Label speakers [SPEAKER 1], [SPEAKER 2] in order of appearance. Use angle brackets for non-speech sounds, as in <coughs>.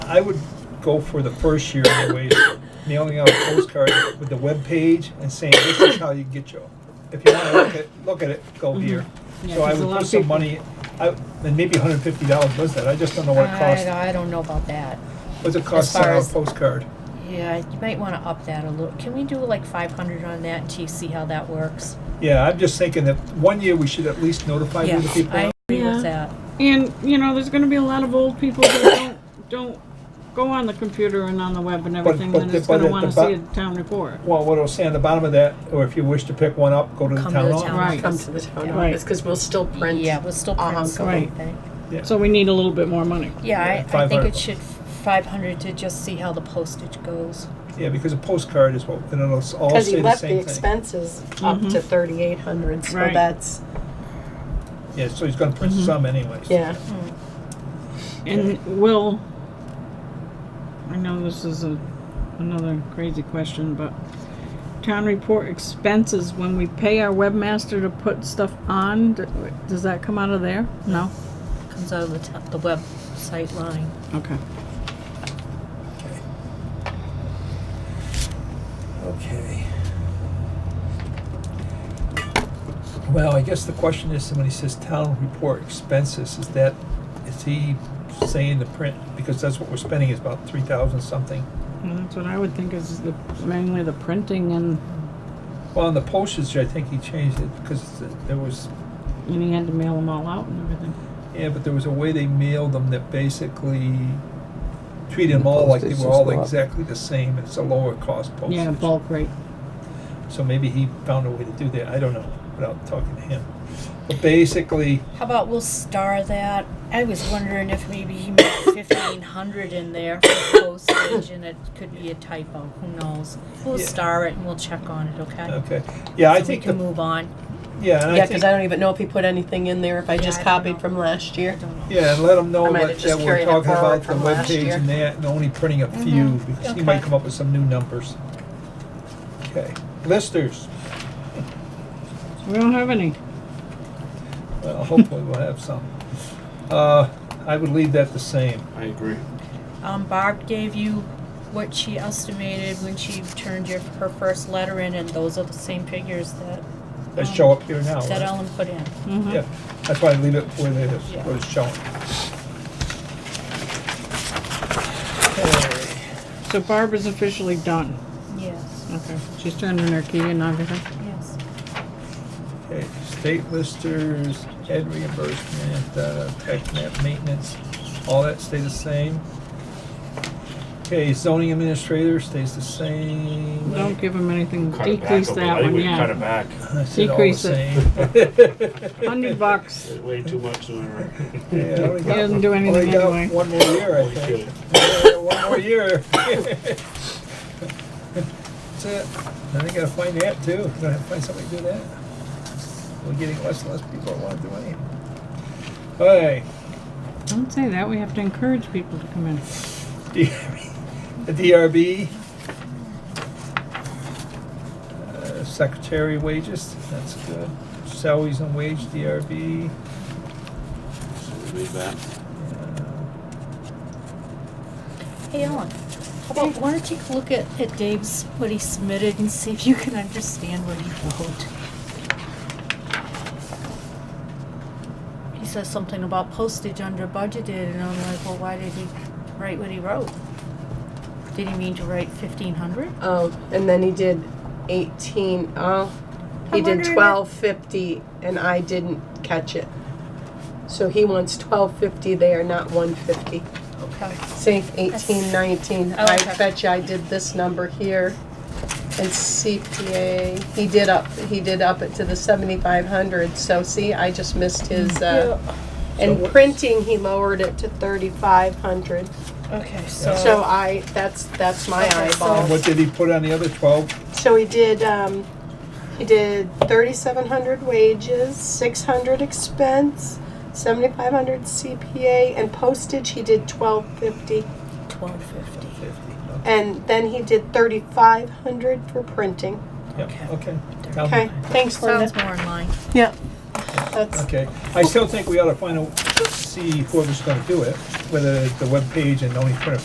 [SPEAKER 1] I would go for the first year anyway, mailing out a postcard with the web page and saying, this is how you get your, if you wanna look at, look at it, go
[SPEAKER 2] Mm-hmm.
[SPEAKER 1] here.
[SPEAKER 3] Yeah,
[SPEAKER 1] So I
[SPEAKER 3] 'cause a
[SPEAKER 1] would
[SPEAKER 3] lot
[SPEAKER 1] put
[SPEAKER 3] of
[SPEAKER 1] some
[SPEAKER 3] people-
[SPEAKER 1] money, I, and maybe hundred and fifty dollars was that, I just don't know what it costs.
[SPEAKER 2] I, I don't know about that.
[SPEAKER 1] What's it cost to
[SPEAKER 2] far
[SPEAKER 1] send out
[SPEAKER 2] as-
[SPEAKER 1] a postcard?
[SPEAKER 2] Yeah, you might wanna up that a little. Can we do like five hundred on that until you see how that works?
[SPEAKER 1] Yeah, I'm just thinking that one year we should at least notify who the
[SPEAKER 2] Yes,
[SPEAKER 1] people.
[SPEAKER 2] I
[SPEAKER 1] are.
[SPEAKER 2] agree
[SPEAKER 3] Yeah.
[SPEAKER 2] with that.
[SPEAKER 3] And, you know, there's gonna be a lot of old people that don't, <coughs> don't go on the computer and on the web and everything,
[SPEAKER 1] but
[SPEAKER 3] that
[SPEAKER 1] the-
[SPEAKER 3] is gonna
[SPEAKER 1] but
[SPEAKER 3] wanna
[SPEAKER 1] the bu-
[SPEAKER 3] see a town report.
[SPEAKER 1] Well, what it'll say on the bottom of that, or if you wish to pick one up, go to the
[SPEAKER 2] Come
[SPEAKER 1] town
[SPEAKER 2] to the
[SPEAKER 1] hall.
[SPEAKER 2] town.
[SPEAKER 3] Right.
[SPEAKER 4] Come to the town
[SPEAKER 2] Yeah.
[SPEAKER 4] office, because we'll still print.
[SPEAKER 2] Yeah, we'll still
[SPEAKER 4] Uh-huh.
[SPEAKER 2] print
[SPEAKER 3] Right.
[SPEAKER 2] something.
[SPEAKER 3] So we need a little bit more money.
[SPEAKER 2] Yeah, I, I
[SPEAKER 1] 500
[SPEAKER 2] think it
[SPEAKER 1] bucks.
[SPEAKER 2] should, five hundred to just see how the postage goes.
[SPEAKER 1] Yeah, because a postcard is what, and it'll s- all
[SPEAKER 4] Because
[SPEAKER 1] say
[SPEAKER 4] he
[SPEAKER 1] the
[SPEAKER 4] left the
[SPEAKER 1] same thing.
[SPEAKER 4] expenses up to thirty-eight hundred, so
[SPEAKER 3] Right.
[SPEAKER 4] that's,
[SPEAKER 1] Yeah, so he's gonna
[SPEAKER 2] Mm-hmm.
[SPEAKER 1] print some anyways.
[SPEAKER 4] yeah.
[SPEAKER 3] And will, I know this is a, another crazy question, but town report expenses, when we pay our webmaster to put stuff on, d- does that come out of there? No?
[SPEAKER 2] Comes out of the top, the website line.
[SPEAKER 3] Okay.
[SPEAKER 1] Okay. Well, I guess the question is, when he says town report expenses, is that, is he saying the print? Because that's what we're spending is about three thousand something.
[SPEAKER 3] Well, that's what I would think is the, mainly the printing and,
[SPEAKER 1] Well, on the postage, I think he changed it because there was,
[SPEAKER 3] and he had to mail them all out and everything.
[SPEAKER 1] yeah, but there was a way they mailed them that basically treated them all like they were all exactly the same. It's a lower cost postage.
[SPEAKER 3] Yeah, bulk rate.
[SPEAKER 1] So maybe he found a way to do that. I don't know without talking to him. But basically,
[SPEAKER 2] How about we'll star that? I was wondering if maybe he made <coughs> fifteen hundred in there for postage and it could be a typo, who knows? We'll
[SPEAKER 1] Yeah.
[SPEAKER 2] star it and we'll check on it, okay?
[SPEAKER 1] okay, yeah, I
[SPEAKER 2] So we
[SPEAKER 1] think
[SPEAKER 2] can
[SPEAKER 1] the,
[SPEAKER 2] move on.
[SPEAKER 1] yeah, and
[SPEAKER 4] Yeah,
[SPEAKER 1] I
[SPEAKER 4] because
[SPEAKER 1] think,
[SPEAKER 4] I don't even know if he put anything in there, if I
[SPEAKER 2] Yeah,
[SPEAKER 4] just
[SPEAKER 2] I don't
[SPEAKER 4] copied
[SPEAKER 2] know.
[SPEAKER 4] from last year.
[SPEAKER 1] yeah, and let him know
[SPEAKER 4] I might have
[SPEAKER 1] that, that
[SPEAKER 4] just
[SPEAKER 1] we're
[SPEAKER 4] carried it
[SPEAKER 1] talking
[SPEAKER 4] forward
[SPEAKER 1] about the
[SPEAKER 4] from last
[SPEAKER 1] webpage
[SPEAKER 4] year.
[SPEAKER 1] and
[SPEAKER 4] Mm-hmm.
[SPEAKER 1] that, and only printing a few, because he might
[SPEAKER 2] Okay.
[SPEAKER 1] come up with some new numbers. Okay, listers,
[SPEAKER 3] We don't have any.
[SPEAKER 1] well, hopefully we'll have some. Uh, I would leave that the same.
[SPEAKER 5] I agree.
[SPEAKER 2] Um, Barb gave you what she estimated when she turned your, her first letter in and those are the same figures that,
[SPEAKER 1] They show up here now,
[SPEAKER 2] that
[SPEAKER 1] right?
[SPEAKER 2] Ellen put in.
[SPEAKER 4] Mm-hmm.
[SPEAKER 3] Mm-hmm.
[SPEAKER 1] Yeah, that's why I leave it where it is,
[SPEAKER 2] Yeah.
[SPEAKER 1] where it's shown.
[SPEAKER 3] So Barb is officially done.
[SPEAKER 2] Yes,
[SPEAKER 3] Okay. She's turned in her key and everything.
[SPEAKER 2] yes.
[SPEAKER 1] Okay, state listers, head reimbursement, uh, tech map maintenance, all that stay the same. Okay, zoning administrator stays the same.
[SPEAKER 3] Don't give him anything.
[SPEAKER 5] Cut it back
[SPEAKER 3] Decrease
[SPEAKER 5] a
[SPEAKER 3] that
[SPEAKER 5] little.
[SPEAKER 3] one,
[SPEAKER 5] We Cut it
[SPEAKER 3] yeah.
[SPEAKER 5] back.
[SPEAKER 1] <laughs> I said all the
[SPEAKER 3] Decrease
[SPEAKER 1] same.
[SPEAKER 3] <laughs> Hundred bucks.
[SPEAKER 5] Way too much. sooner.
[SPEAKER 1] <laughs> Yeah, I
[SPEAKER 5] <laughs>
[SPEAKER 1] only
[SPEAKER 3] He
[SPEAKER 1] got-
[SPEAKER 3] doesn't do
[SPEAKER 1] only
[SPEAKER 3] anything
[SPEAKER 1] got
[SPEAKER 3] anyway.
[SPEAKER 1] one more year, I
[SPEAKER 5] Holy
[SPEAKER 1] think.
[SPEAKER 5] shit.
[SPEAKER 1] Yeah, <laughs> One more year. That's it. Then I gotta find that too. Gonna have to find somebody to do that. We're getting less and less people that wanna do anything. Okay.
[SPEAKER 3] Don't say that. We have to encourage people to come in.
[SPEAKER 1] <laughs> DRB, the DRB. Uh, Secretary wages, that's good. Salaries and wage, DRB.
[SPEAKER 5] So we leave that.
[SPEAKER 1] uh,
[SPEAKER 2] Hey Ellen, how about, why don't you take a look at, at Dave's, what he submitted and see if you can understand what he wrote? He says something about postage under budgeted and I'm like, well, why did he write what he wrote? Did he mean to write fifteen hundred?
[SPEAKER 4] Um, and then he did eighteen, oh, he
[SPEAKER 2] I'm
[SPEAKER 4] did
[SPEAKER 2] wondering if-
[SPEAKER 4] twelve fifty, and I didn't catch it. So he wants twelve fifty there, not one fifty.
[SPEAKER 2] Okay.
[SPEAKER 4] Say eighteen nineteen,
[SPEAKER 2] Oh,
[SPEAKER 4] I
[SPEAKER 2] okay.
[SPEAKER 4] bet you I did this number here. And CPA, he did up, he did up it to the seventy-five hundred, so see, I just missed his, uh,
[SPEAKER 1] So
[SPEAKER 4] and
[SPEAKER 1] what-
[SPEAKER 4] printing, he lowered it to thirty-five hundred.
[SPEAKER 2] Okay,
[SPEAKER 4] So I, that's, that's my
[SPEAKER 2] Okay, so-
[SPEAKER 4] eyeball.
[SPEAKER 1] And what did he put on the other twelve?
[SPEAKER 4] So he did, um, he did thirty-seven hundred wages, six hundred expense, seventy-five hundred CPA, and postage, he did twelve fifty.
[SPEAKER 2] Twelve fifty.
[SPEAKER 1] Fifty.
[SPEAKER 4] And then he did thirty-five hundred for printing.
[SPEAKER 1] Yeah, okay. Tell me.
[SPEAKER 4] Okay, thanks, Linda.
[SPEAKER 2] Sounds more in line.
[SPEAKER 4] Yeah. That's,
[SPEAKER 1] Okay, I still think we ought to find out, see whoever's gonna do it, whether the webpage and only print a